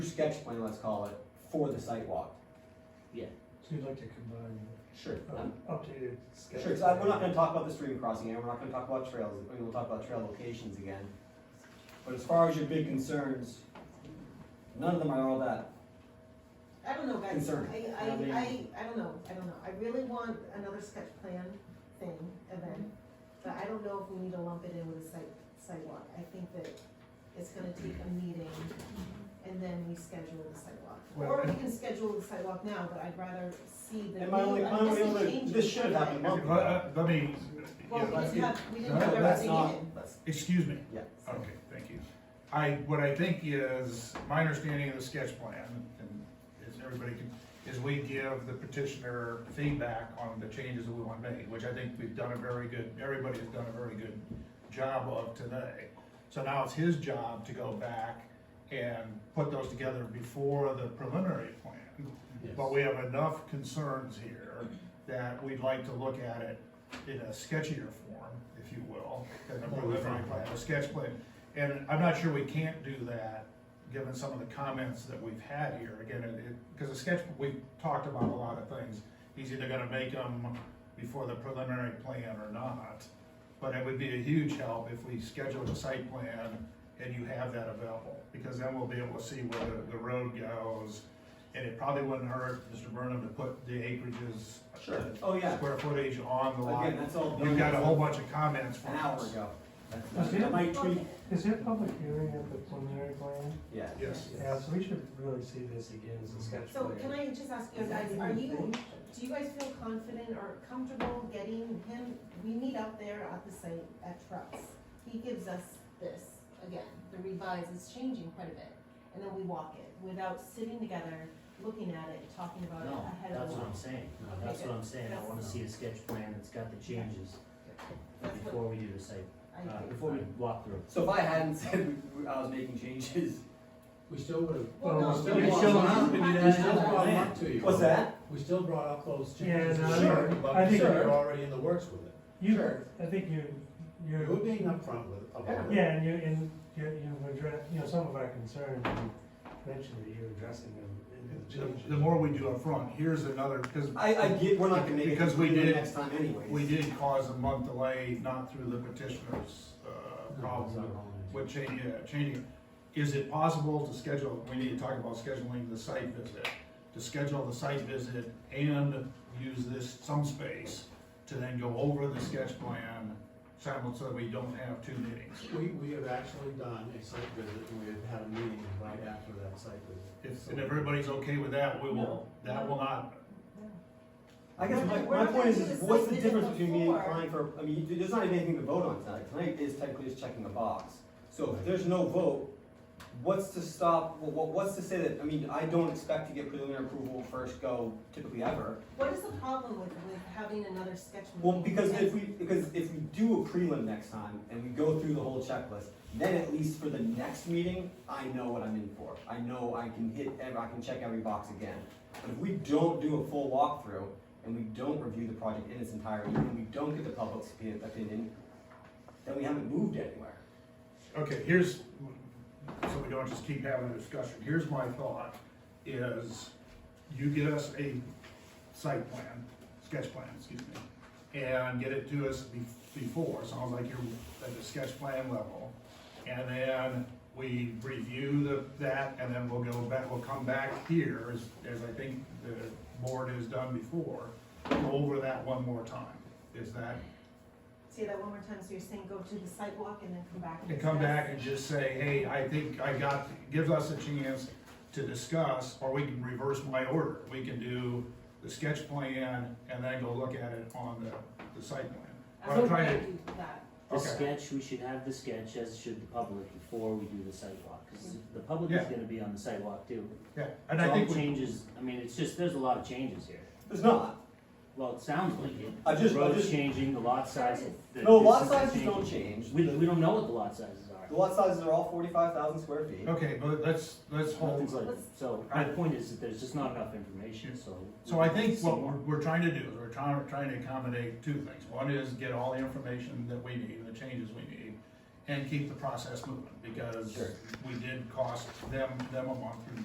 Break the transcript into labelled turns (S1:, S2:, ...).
S1: sketch plan, let's call it, for the site walk.
S2: So you'd like to combine
S1: Sure.
S2: an updated sketch?
S1: Sure, so I- we're not gonna talk about the stream crossing, and we're not gonna talk about trails, I mean, we'll talk about trail locations again. But as far as your big concerns, none of them are all that.
S3: I don't know, guys, I,
S1: Concern.
S3: I,
S1: I mean-
S3: I, I don't know, I don't know, I really want another sketch plan thing, event, but I don't know if we need to lump it in with a site, sidewalk, I think that it's gonna take a meeting, and then we schedule the sidewalk. Or
S2: Well-
S3: we can schedule the sidewalk now, but I'd rather see the.
S1: And my only,
S3: new-
S1: my
S3: I guess
S1: only
S3: we
S1: other,
S3: change
S1: this
S3: it
S1: should have happened a
S3: sometime.
S1: month
S2: Let,
S1: ago.
S2: uh, let- let me,
S3: Well, we
S2: yeah,
S3: didn't have, we didn't
S2: No,
S3: have
S1: That's
S3: everything
S1: not,
S3: in,
S1: that's,
S2: excuse me,
S1: yeah.
S2: okay, thank you. I, what I think is, my understanding of the sketch plan, and is everybody can, is we give the petitioner feedback on the changes that we want made, which I think we've done a very good, everybody has done a very good job of today. So now it's his job to go back and put those together before the preliminary plan. But we have enough concerns here that we'd like to look at it in a sketchier form, if you will, than a preliminary plan, a sketch plan. And I'm not sure we can't do that, given some of the comments that we've had here, again, it, it, because a sketch, we've talked about a lot of things. He's either gonna make them before the preliminary plan or not, but it would be a huge help if we scheduled a site plan and you have that available, because then we'll be able to see where the, the road goes. And it probably wouldn't hurt Mr. Burnham to put the acreages.
S1: Sure.
S2: the
S1: Oh, yeah.
S2: Square footage on the lot.
S1: Again, that's all done.
S2: You've got a whole bunch of comments
S1: An
S2: from
S1: hour
S2: us.
S1: ago. That's-
S2: Was
S1: That might tweak,
S4: Is there public hearing at the preliminary plan?
S1: yeah.
S2: Yes.
S4: Yeah, so we should really see this again as a sketch
S3: So
S4: plan.
S3: can I just ask you guys, are you, do you guys feel confident or comfortable getting him, we meet out there at the site at Trucks. He gives us this, again, the revise is changing quite a bit, and then we walk it without sitting together, looking at it, talking about it
S5: No,
S3: ahead of
S5: that's
S3: the
S5: what
S3: walk.
S5: I'm saying,
S3: Okay,
S5: that's
S3: good.
S5: what I'm saying, I wanna
S3: That's-
S5: see a sketch plan that's got the changes
S3: That's what
S5: before we do the site,
S3: I
S5: uh,
S3: think.
S5: before we walk through.
S1: So if I hadn't said I was making changes,
S6: We still would have.
S3: Well, no,
S4: Well,
S3: you
S4: we
S3: have
S6: We
S3: to
S6: still
S3: have to have
S6: brought them
S3: that.
S6: up to you.
S1: what's that?
S6: We still brought up those
S4: Yeah,
S6: changes.
S4: no, I
S1: Sure.
S4: think-
S6: But
S4: I think
S6: you're
S4: you're,
S6: already in the works with it.
S4: you, I think you,
S6: You're
S4: you,
S6: being upfront with it. about it.
S4: yeah, and you, and you, you've addressed, you know, some of our concerns, and mentioned that you're addressing them in the changes.
S2: The- The more we do up front, here's another, because.
S1: I, I get, we're not gonna make it
S2: Because we
S1: do it
S2: did-
S1: next time anyways.
S2: We did cause a month delay, not through the petitioner's, uh, problem with changing, yeah, uh, changing. Is it possible to schedule, we need to talk about scheduling the site visit, to schedule the site visit and use this, some space to then go over the sketch plan simultaneously, so we don't have two meetings.
S6: We, we have actually done a site visit and we have had a meeting right after that site visit.
S2: If, and everybody's okay with that, we will, that will not,
S1: I guess my,
S3: We're
S1: my
S3: not
S1: point
S3: gonna
S1: is,
S3: do
S1: is
S3: the
S1: what's
S3: same
S1: the
S3: thing
S1: difference between me and
S3: before.
S1: applying for, I mean, there's not even anything to vote on tonight, tonight is technically just checking a box. So if there's no vote, what's to stop, wha- wha- what's to say that, I mean, I don't expect to get preliminary approval first go typically ever.
S3: What is the problem with, with having another sketch?
S1: Well,
S3: meeting?
S1: because
S3: Yes.
S1: if we, because if we do a prelim next time and we go through the whole checklist, then at least for the next meeting, I know what I'm in for. I know I can hit, ev- I can check every box again. But if we don't do a full walkthrough and we don't review the project in its entirety and we don't get the public's opi- opinion, then we haven't moved anywhere.
S2: okay, here's, so we don't just keep having a discussion, here's my thought, is you get us a site plan, sketch plan, excuse me, and get it to us be- before, sounds like you're at the sketch plan level. And then we review the, that, and then we'll go back, we'll come back here, as, as I think the board has done before, go over that one more time, is that
S3: Say that one more time, so you're saying go to the sidewalk and then come back.
S2: and come back
S3: discuss.
S2: and just say, hey, I think I got, gives us a chance to discuss, or we can reverse my order. We can do the sketch plan and then go look at it on the, the site plan.
S3: I
S2: What I'm
S3: would
S2: trying
S3: like to do that.
S5: The
S2: Okay.
S5: sketch, we should have the sketch, as should the public, before we do the sidewalk, cause the public is
S2: Yeah.
S5: gonna be on the sidewalk too.
S2: to, yeah, and I think
S5: All
S2: we,
S5: changes, I mean, it's just, there's a lot of changes here,
S1: There's not.
S5: well, it sounds like it.
S1: I just- I
S5: The road's
S1: just-
S5: changing, the lot size. the
S1: No, lot
S5: distance is
S1: sizes don't
S5: changing.
S1: change.
S5: We,
S1: The
S5: we don't know what the lot sizes
S1: the
S5: are,
S1: lot sizes are all forty-five thousand square feet.
S2: okay, but let's, let's hold
S5: nothing's like, so, my point is that there's just not enough information, so. we
S2: So I
S5: need to
S2: think
S5: see
S2: what
S5: more.
S2: we're, we're trying to do is we're trying, trying to accommodate two things. One is get all the information that we need, the changes we need, and keep the process moving, because
S1: Sure.
S2: we did cost them, them a month